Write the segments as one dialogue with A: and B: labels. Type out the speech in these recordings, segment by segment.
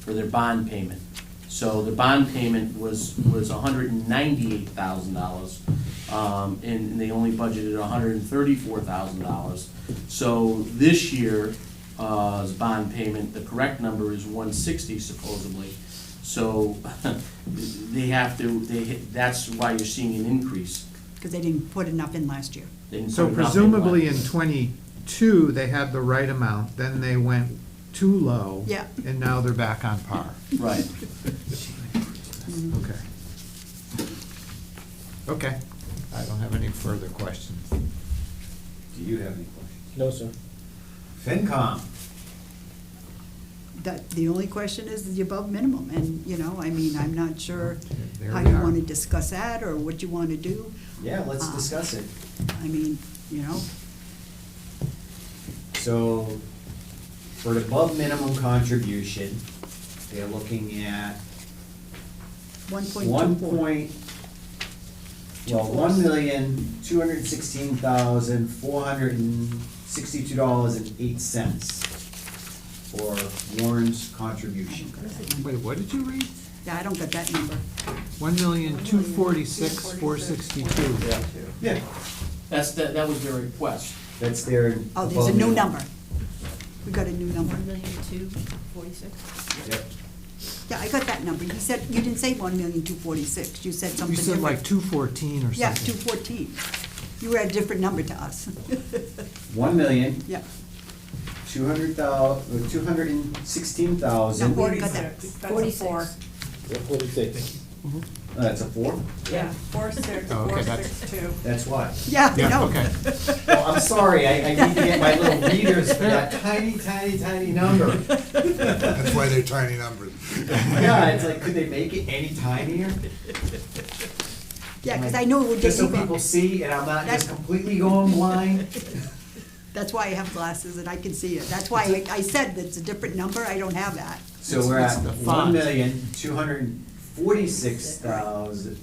A: for their bond payment. So their bond payment was, was hundred and ninety-eight thousand dollars, um, and and they only budgeted hundred and thirty-four thousand dollars. So this year, uh's bond payment, the correct number is one sixty supposedly. So they have to, they, that's why you're seeing an increase.
B: because they didn't put enough in last year.
A: They didn't
C: So
A: put enough in
C: presumably
A: last-
C: in twenty-two, they had the right amount, then they went too low.
B: Yeah.
C: And now they're back on par.
A: Right.
B: Mm-hmm.
C: Okay. Okay, I don't have any further questions.
D: Do you have any questions?
E: No, sir.
D: FinCom,
B: The, the only question is the above minimum, and, you know, I mean, I'm not sure
C: There
B: how
C: we
B: you
C: are.
B: want to discuss that, or what you want to do.
D: yeah, let's
B: Uh.
D: discuss it.
B: I mean, you know,
D: So, for an above minimum contribution, they're looking at
B: one point
D: one
B: two four.
D: point, well, one million, two hundred sixteen thousand, four hundred and sixty-two dollars and eight cents for Warren's contribution.
C: Wait, what did you read?
B: Yeah, I don't get that number.
C: One million, two forty-six, four sixty-two.
D: Yeah,
A: That's, that, that was their request.
D: that's their.
B: Oh, there's
D: above
B: a new
D: minimum.
B: number. We got a new number.
F: One million two forty-six?
D: Yep.
B: Yeah, I got that number. You said, you didn't say one million two forty-six, you said something
C: You
B: different.
C: said like two fourteen or something.
B: Yeah, two fourteen. You were at a different number to us.
D: One million,
B: Yeah.
D: two hundred thou, two hundred and sixteen
B: No,
D: thousand,
B: we got that.
F: Forty-four.
E: Yeah, Forty-six.
D: that's Uh, a four,
G: Yeah, four six,
C: Oh, okay,
G: four
C: that's-
G: six two.
D: that's why.
B: Yeah,
C: Yeah,
B: no.
C: okay.
D: Well, I'm sorry, I, I need to get my little readers for that tiny, tiny, tiny number.
H: That's why they're tiny numbers.
D: Yeah, it's like, could they make it any tinier?
B: Yeah, because I knew it would get
D: Just so
B: you.
D: people see and I'm not just
B: That's-
D: completely going blind.
B: That's why I have glasses and I can see it. That's why I- I said that's a different number, I don't have that.
D: So we're at
C: It's- it's the
D: one
C: font.
D: million, two hundred and forty-six thousand,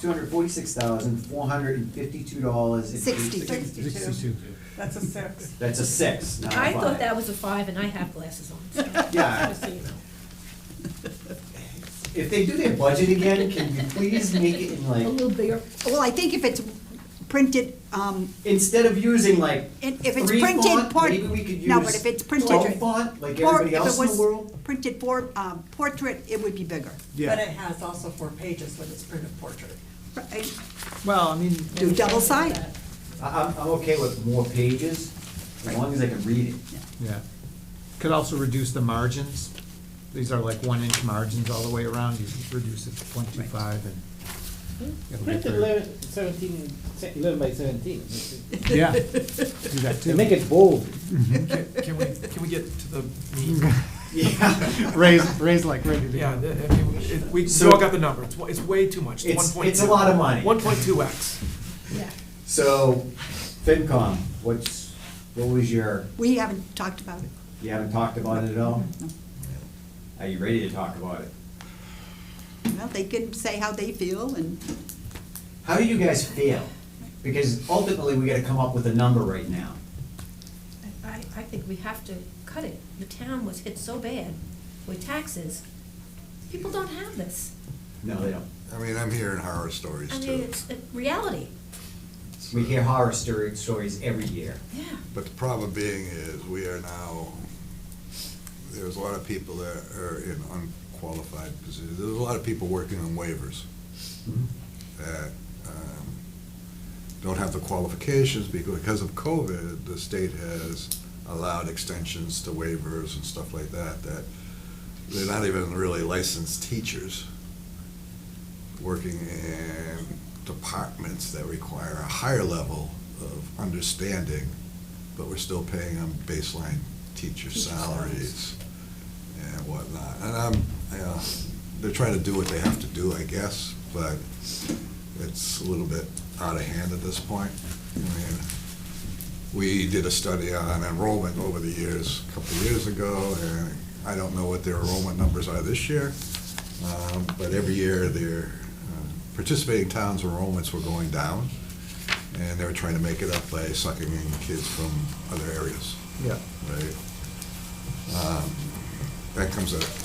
D: two hundred and forty-six thousand, four hundred and fifty-two dollars and
B: Sixty.
D: eighty-six.
G: Sixty-two. That's a six.
D: That's a six, not a
F: I
D: five.
F: thought that was a five, and I have glasses on, so,
D: Yeah,
F: just so you know.
D: if they do their budget again, can you please make it in
F: A
D: like,
F: little bigger.
B: Well, I think if it's printed, um,
D: instead of using like
B: and if it's
D: Three
B: printed,
D: font,
B: port,
D: maybe we could
B: no, but
D: use
B: if it's printed.
D: twelve font, like
B: Or
D: everybody else in the
B: If
D: world?
B: it was printed for, um, portrait, it would be bigger.
G: But
C: Yeah,
G: it has also four pages when it's printed portrait.
B: Right?
C: well, I mean,
B: Do
F: uh,
B: double-sided.
D: I, I'm, I'm okay with more pages, as long as I can read it.
C: yeah. Could also reduce the margins. These are like one inch margins all the way around. You could reduce it to point two five and. it'll get
E: Print
C: there.
E: eleven, seventeen, se- eleven by seventeen.
C: Yeah, do that
E: To
C: too.
E: make it bold.
I: Can we, can we get to the meat?
C: Raise, raise like ready to
I: Yeah,
C: go.
I: the- I mean, it- we, we
D: So-
I: all got the number, it's, wa- it's way too much, it's one
D: It's,
I: point two.
D: it's a lot of money.
I: One point two X.
D: So, FinCom, what's, what was your,
B: We haven't talked about it.
D: you haven't talked about it at all? Are you ready to talk about it?
B: Well, they can say how they feel and,
D: How do you guys feel? Because ultimately, we gotta come up with a number right now.
F: I, I think we have to cut it. The town was hit so bad with taxes. People don't have this.
D: No, they don't.
H: I mean, I'm hearing horror stories
F: I mean,
H: too.
F: it's a reality.
D: We hear horror story, stories every year.
F: Yeah.
H: But the problem being is, we are now, there's a lot of people that are in unqualified positions. There's a lot of people working on waivers
B: Mm-hmm.
H: that um, don't have the qualifications because because of COVID, the state has allowed extensions to waivers and stuff like that, that they're not even really licensed teachers working in departments that require a higher level of understanding but we're still paying them baseline teacher salaries and whatnot. And I'm, yeah, they're trying to do what they have to do, I guess, but it's a little bit out of hand at this point. I mean, We did a study on enrollment over the years, a couple of years ago, and I don't know what their enrollment numbers are this year, um, but every year their uh, participating towns' enrollments were going down and they were trying to make it up by sucking in kids from other areas,
C: Yeah.
H: right? Um, That comes at